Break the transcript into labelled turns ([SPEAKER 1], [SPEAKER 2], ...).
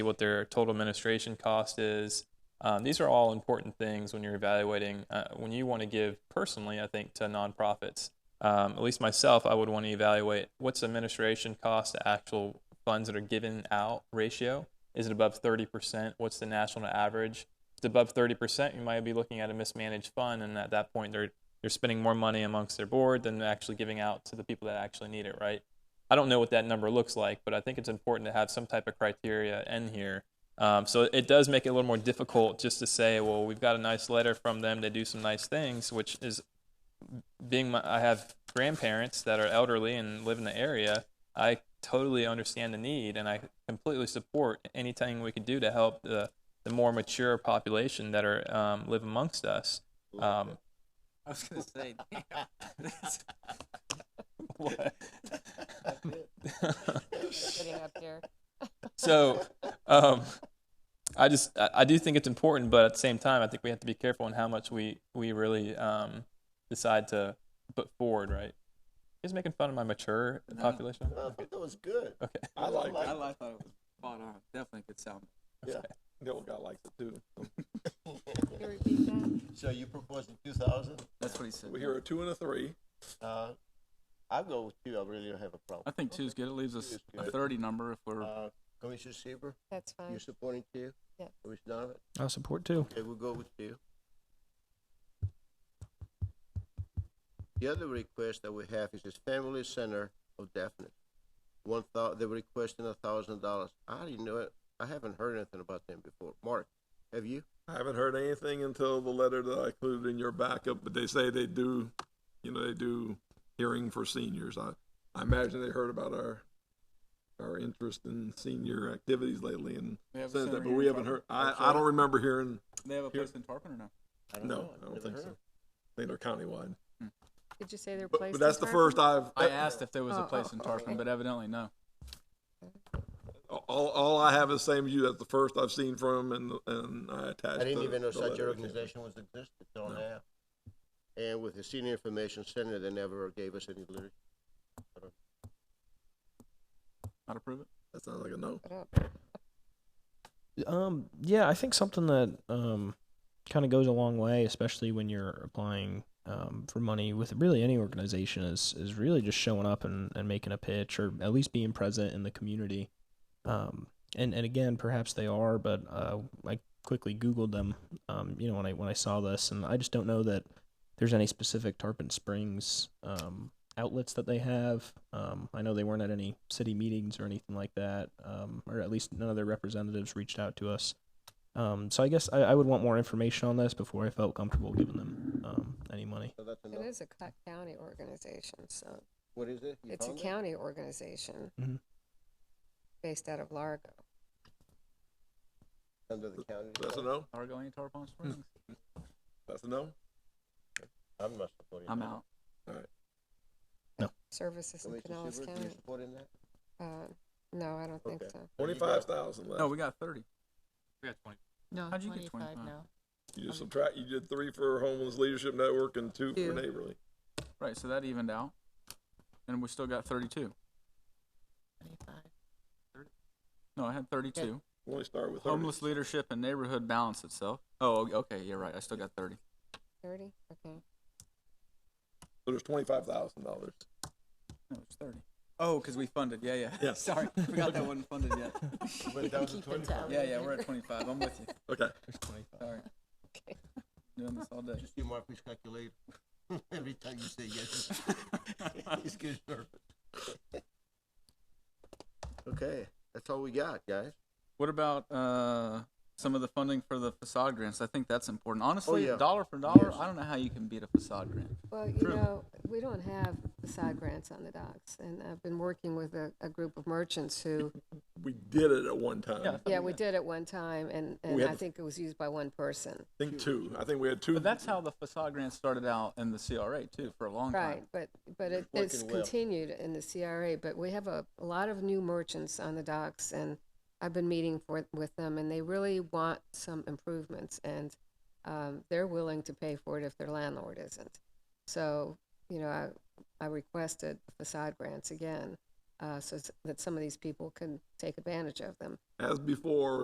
[SPEAKER 1] what their total administration cost is. Um, these are all important things when you're evaluating, uh, when you want to give personally, I think, to nonprofits. Um, at least myself, I would want to evaluate what's administration cost to actual funds that are given out ratio. Is it above 30%? What's the national average? If it's above 30%, you might be looking at a mismanaged fund, and at that point, they're they're spending more money amongst their board than actually giving out to the people that actually need it, right? I don't know what that number looks like, but I think it's important to have some type of criteria in here. Um, so it does make it a little more difficult just to say, well, we've got a nice letter from them. They do some nice things, which is being my, I have grandparents that are elderly and live in the area. I totally understand the need, and I completely support anything we can do to help the, the more mature population that are um, live amongst us. Um,
[SPEAKER 2] I was gonna say, damn. That's-
[SPEAKER 1] what?
[SPEAKER 3] sitting up here.
[SPEAKER 1] so um, I just I, I do think it's important, but at the same time, I think we have to be careful in how much we we really um, decide to put forward. Right? He's making fun of my mature
[SPEAKER 2] No.
[SPEAKER 1] population.
[SPEAKER 4] Uh, I thought that was good.
[SPEAKER 1] Okay.
[SPEAKER 4] I like
[SPEAKER 2] I
[SPEAKER 4] that.
[SPEAKER 2] li- I thought it was spot on. Definitely could sound.
[SPEAKER 5] The old guy likes it too.
[SPEAKER 3] Can you repeat that?
[SPEAKER 4] So you proposing two thousand?
[SPEAKER 2] That's what he said.
[SPEAKER 5] We hear a two and a three.
[SPEAKER 4] Uh, I go with two. I really don't have a problem.
[SPEAKER 2] I think two's good. It leaves us
[SPEAKER 4] Two's
[SPEAKER 2] a
[SPEAKER 4] good.
[SPEAKER 2] thirty number if we're.
[SPEAKER 4] Uh, Commissioner Seaver,
[SPEAKER 3] That's fine.
[SPEAKER 4] you supporting two?
[SPEAKER 3] Uh, Yeah.
[SPEAKER 4] Commissioner Donovan?
[SPEAKER 6] I support too.
[SPEAKER 4] Okay, we'll go with two. The other request that we have is this family center of deafness. One thou, they were requesting a thousand dollars. I didn't know it. I haven't heard anything about them before. Mark, have you?
[SPEAKER 5] I haven't heard anything until the letter that I included in your backup, but they say they do, you know, they do hearing for seniors. I, I imagine they heard about our, our interest in senior activities lately and
[SPEAKER 2] We have a
[SPEAKER 5] says
[SPEAKER 2] center
[SPEAKER 5] that, but
[SPEAKER 2] here
[SPEAKER 5] we
[SPEAKER 2] in
[SPEAKER 5] haven't heard,
[SPEAKER 2] Tarpon.
[SPEAKER 5] I,
[SPEAKER 4] I'm
[SPEAKER 5] I don't
[SPEAKER 4] sorry?
[SPEAKER 5] remember hearing,
[SPEAKER 2] They have a
[SPEAKER 5] here-
[SPEAKER 2] place in Tarpon or no?
[SPEAKER 4] I I've
[SPEAKER 5] no, I don't
[SPEAKER 4] never
[SPEAKER 5] think
[SPEAKER 4] heard
[SPEAKER 5] so.
[SPEAKER 4] of
[SPEAKER 5] I think they're countywide.
[SPEAKER 3] Did you say they're
[SPEAKER 5] But,
[SPEAKER 3] placed?
[SPEAKER 5] but that's
[SPEAKER 3] in
[SPEAKER 5] the
[SPEAKER 3] Tarpon?
[SPEAKER 5] first I've.
[SPEAKER 2] I asked if there was
[SPEAKER 3] Oh,
[SPEAKER 2] a
[SPEAKER 3] oh,
[SPEAKER 2] place in Tarpon,
[SPEAKER 3] okay.
[SPEAKER 2] but evidently no.
[SPEAKER 5] All, all I have is same you. That's the first I've seen from him, and and I attached.
[SPEAKER 4] I didn't
[SPEAKER 5] the-
[SPEAKER 4] even know
[SPEAKER 5] the
[SPEAKER 4] such an
[SPEAKER 5] letter.
[SPEAKER 4] organization was existed, don't
[SPEAKER 5] No.
[SPEAKER 4] have. And with the senior information center, they never gave us any literature.
[SPEAKER 2] Not approve it.
[SPEAKER 5] That sounds like a no.
[SPEAKER 3] What up?
[SPEAKER 6] Um, yeah, I think something that um kind of goes a long way, especially when you're applying um, for money with really any organization, is is really just showing up and, and making a pitch or at least being present in the community. Um, and, and again, perhaps they are, but uh, I quickly Googled them. Um, you know, when I when I saw this, and I just don't know that there's any specific Tarpon Springs um, outlets that they have. Um, I know they weren't at any city meetings or anything like that, um, or at least none of their representatives reached out to us. Um, so I guess I, I would want more information on this before I felt comfortable giving them um, any money.
[SPEAKER 4] So that's a
[SPEAKER 3] It
[SPEAKER 4] no.
[SPEAKER 3] is a co- county organization, so
[SPEAKER 4] What is it? You
[SPEAKER 3] it's a
[SPEAKER 4] found it?
[SPEAKER 3] county organization
[SPEAKER 5] Mm-hmm.
[SPEAKER 6] Mhm.
[SPEAKER 3] based out of Largo.
[SPEAKER 4] Under the county.
[SPEAKER 5] That's a no.
[SPEAKER 2] Argo ain't Tarpon Springs.
[SPEAKER 5] That's a no.
[SPEAKER 4] I'm not supporting.
[SPEAKER 2] I'm
[SPEAKER 4] that.
[SPEAKER 2] out.
[SPEAKER 3] Services in
[SPEAKER 4] Commissioner
[SPEAKER 3] Pinellas
[SPEAKER 4] Seaver, you
[SPEAKER 3] County.
[SPEAKER 4] supporting that?
[SPEAKER 3] Uh, no, I don't think
[SPEAKER 4] Okay.
[SPEAKER 3] so.
[SPEAKER 5] Twenty-five thousand left.
[SPEAKER 2] No, we got thirty.
[SPEAKER 1] We got 20.
[SPEAKER 7] No,
[SPEAKER 2] How'd you get
[SPEAKER 7] twenty-five
[SPEAKER 2] 25?
[SPEAKER 7] now.
[SPEAKER 5] You just subtract. You did three for homeless leadership network and two for
[SPEAKER 3] Two.
[SPEAKER 5] neighborly.
[SPEAKER 2] Right, so that evened out, and we still got thirty-two.
[SPEAKER 7] Twenty-five.
[SPEAKER 2] No, I had thirty-two.
[SPEAKER 5] We only start with
[SPEAKER 2] Homeless leadership and neighborhood balance itself. Oh, okay, you're right. I still got thirty.
[SPEAKER 3] Thirty? Okay.
[SPEAKER 5] So there's twenty-five thousand dollars.
[SPEAKER 2] No, it's thirty. Oh, because we funded. Yeah, yeah.
[SPEAKER 5] Yeah.
[SPEAKER 2] Sorry, forgot that wasn't funded yet.
[SPEAKER 7] You can keep in tally.
[SPEAKER 2] Yeah, yeah, we're at twenty-five. I'm with you.
[SPEAKER 5] Okay.
[SPEAKER 2] Sorry.
[SPEAKER 3] Okay.
[SPEAKER 2] Doing this all day.
[SPEAKER 4] Just do Mark, please calculate. Every time you say yes, he's good. Okay, that's all we got, guys.
[SPEAKER 2] What about uh, some of the funding for the facade grants? I think that's important. Honestly,
[SPEAKER 4] Oh, yeah.
[SPEAKER 2] dollar for dollar,
[SPEAKER 4] Yes.
[SPEAKER 2] I don't know how you can beat a facade grant.
[SPEAKER 3] Well, you
[SPEAKER 2] True.
[SPEAKER 3] know, we don't have side grants on the docks, and I've been working with a, a group of merchants who,
[SPEAKER 5] We did it at one time.
[SPEAKER 2] Yeah.
[SPEAKER 3] yeah, we did at one time, and, and
[SPEAKER 5] had
[SPEAKER 3] I
[SPEAKER 5] to-
[SPEAKER 3] think it was used by one person.
[SPEAKER 5] I think two. I think we had two.
[SPEAKER 2] But that's how the facade grant started out in the CRA too for a long
[SPEAKER 3] Right,
[SPEAKER 2] time.
[SPEAKER 3] but, but it-
[SPEAKER 4] Working
[SPEAKER 3] it's
[SPEAKER 4] well.
[SPEAKER 3] continued in the CRA, but we have a, a lot of new merchants on the docks, and I've been meeting for, with them, and they really want some improvements, and, um, they're willing to pay for it if their landlord isn't. So, you know, I, I requested facade grants again, uh, so s- that some of these people can take advantage of them.
[SPEAKER 5] As before,